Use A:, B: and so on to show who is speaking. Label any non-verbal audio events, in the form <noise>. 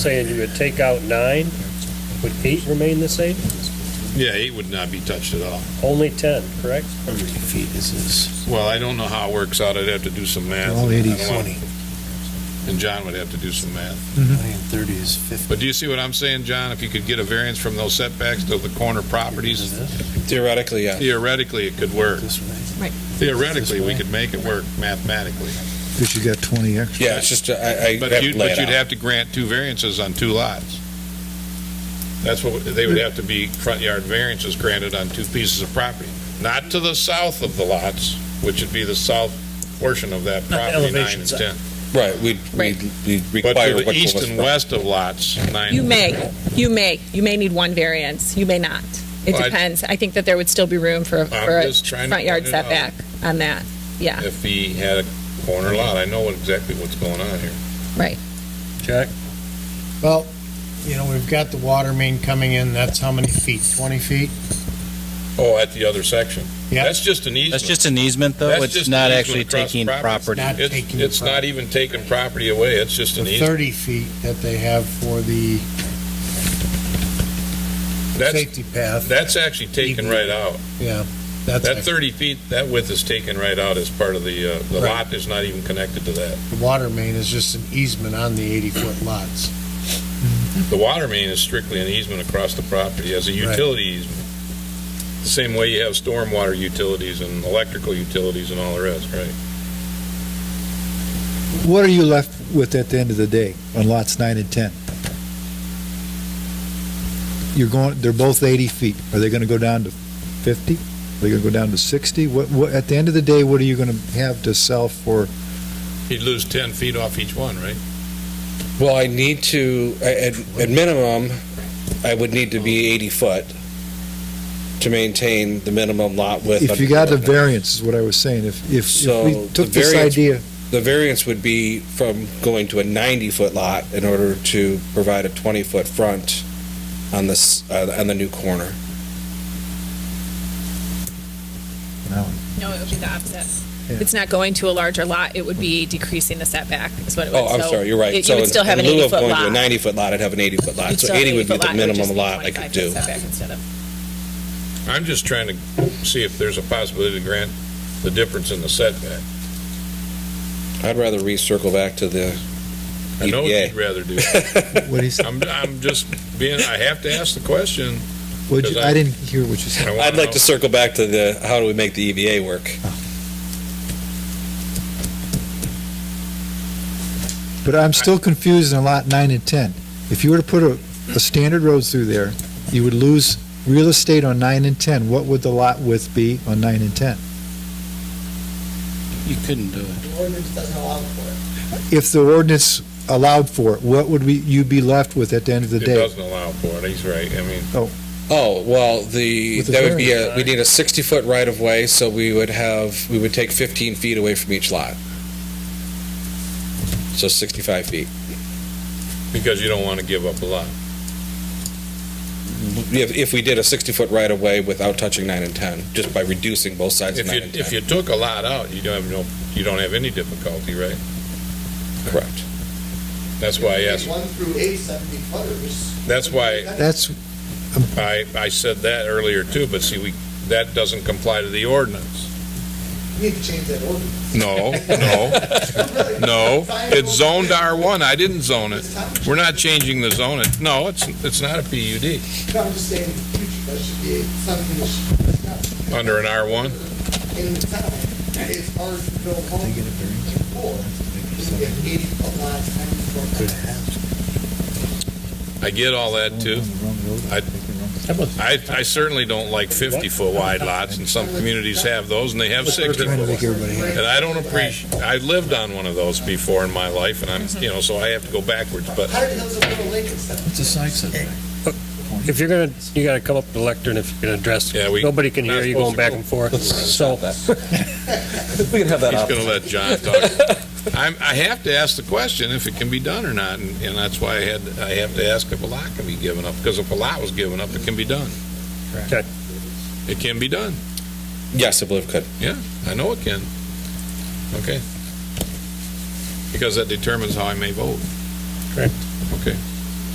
A: saying you would take out nine, would eight remain the same?
B: Yeah, eight would not be touched at all.
A: Only 10, correct?
C: How many feet is this?
B: Well, I don't know how it works out. I'd have to do some math.
D: All
B: I don't
D: 80,
B: know. And John would have to do some math.
C: 20 and 30 is 50.
B: But do you see what I'm saying, John? If you could get a variance from those setbacks to the corner properties,
E: Theoretically, yeah.
B: theoretically, it could work.
C: This way.
B: Theoretically, we could make it work mathematically.
D: Because you got 20 extra.
E: Yeah, it's just, uh, I, I.
B: But you'd, but you'd have to grant two variances on two lots. That's what, they would have to be front yard variances granted on two pieces of property. Not to the south of the lots, which would be the south portion of that
A: Not the
B: property, nine and
A: elevations.
B: 10.
E: Right, we'd,
F: Right.
E: we'd we'd
B: But
E: require.
B: to the
E: what
B: east
E: was
B: and
E: front.
B: west of lots, nine.
F: You may, you may, you may need one variance, you may not. It
B: Well, I-
F: depends. I think that there would still be room for, a- for a
B: just trying to
F: front yard
B: point it out.
F: setback on that. Yeah,
B: If he had a corner lot, I know exactly what's going on here.
F: right.
A: Jack?
G: Well, you know, we've got the water main coming in, that's how many feet, 20 feet?
B: Oh, at the other section.
G: Yeah.
B: That's just an easement.
H: That's just an easement, though?
B: That's
H: It's
B: just
H: not
B: an
H: actually
B: easement across
H: taking
B: properties.
H: property?
G: Not
B: It's,
G: taking the
B: it's not
G: property.
B: even taking property away, it's just an
G: The
B: easement.
G: 30 feet that they have for the
B: That's,
G: safety path,
B: that's actually taken right out.
G: yeah. That's,
B: That
G: like-
B: 30 feet, that width is taken right out as part of the, uh, the
G: Right.
B: lot is not even connected to that.
G: the water main is just an easement on the 80-foot lots.
B: The water main is strictly an easement across the property as a
G: Right.
B: utility easement. The same way you have stormwater utilities and electrical utilities and all the rest, right?
D: What are you left with at the end of the day on lots 9 and 10? You're going, they're both 80 feet. Are they going to go down to 50? Are they going to go down to 60? What, what, at the end of the day, what are you going to have to sell for?
B: You'd lose 10 feet off each one, right?
E: Well, I need to, a- at, at minimum, I would need to be 80 foot to maintain the minimum lot width.
D: If
E: under
D: you got the
E: the ordinance.
D: variance, is what I was saying, if, if- if
E: So,
D: we
E: the
D: took this
E: variance-
D: idea,
E: The variance would be from going to a 90 foot lot in order to provide a 20 foot front on this, uh, on the new corner.
F: No, it would be the opposite.
D: Yeah.
F: It's not going to a larger lot, it would be decreasing the setback is what it would.
E: Oh, I'm
F: So
E: sorry, you're
F: it-
E: right.
F: You
E: So
F: would still
E: in-
F: have an
E: in lieu of
F: 80-foot
E: going to a
F: lot.
E: 90 foot lot, I'd have an 80 foot lot.
F: You'd
E: So
F: still have an
E: 80 would be
F: 80-foot
E: the
F: lot, it would just
E: minimum
F: be
E: lot I could
F: 25
E: do.
F: setback instead of-
B: I'm just trying to see if there's a possibility to grant the difference in the setback.
E: I'd rather recircle back to the
B: I know what
E: EPA.
B: you'd rather
E: <laughs>
B: do.
D: what is,
B: I'm, I'm just being, I have to ask the question.
D: what you-
B: Because I-
D: I didn't hear what you said.
B: I wanna
E: I'd like
B: know.
E: to circle back to the, how do we make the EVA work?
D: But I'm still confused in lot nine and 10. If you were to put a, a standard road through there, you would lose real estate on nine and 10. What would the lot width be on nine and 10?
H: You couldn't do it.
D: If the ordinance allowed for it, what would we, you be left with at the end of the
B: It
D: day?
B: doesn't allow for it, he's right, I mean,
E: Oh, well, the,
D: With the
E: that would be a, we need a 60-foot right-of-way, so we would have, we would take 15 feet away from each lot. So 65 feet.
B: because you don't want to give up a lot.
E: If, if we did a 60-foot right-of-way without touching 9 and 10, just by reducing both sides of
B: If
E: 9
B: you,
E: and
B: if
E: 10.
B: you took a lot out, you don't have no, you don't have any difficulty, right?
E: Correct.
B: That's why I asked,
I: One through eight, seventy footers.
B: that's why
D: That's,
B: I, I said that earlier too, but see, we, that doesn't comply to the ordinance.
I: We need to change that ordinance.
B: No, no, no, it's zoned R1, I didn't zone it. We're not changing the zone, It no, it's, it's not a PUD,
I: No, I'm just saying, in the future, that should be something that should be done.
B: under an R1.
I: in the town. It's hard to build homes for, because we have eighty foot lots, ninety foot lots.
B: I get all that too. I, I certainly don't like 50-foot wide lots, and some communities have those, and they have 60-foot. And I don't appreciate, I lived on one of those before in my life, and I'm, you know, so I have to go backwards, but
I: How did Hills of Little Lake instead of
C: It's a side setback.
A: If you're going to, you got to come up to the lectern if you're going to address.
B: Yeah, we-
A: Nobody can
B: not
A: hear you going
B: supposed to
A: back
B: go.
A: and forth. So,
E: We can have that
B: he's gonna let John talk. <laughs> I'm, I have to ask the question if it can be done or not, and, and that's why I had, I have to ask if a lot can be given up, because if a lot was given up, it can be done.
A: Okay.
B: It can be done.
E: Yes, I believe it could.
B: I know it can. Okay. Because that determines how I may vote.
A: Correct.
B: Okay.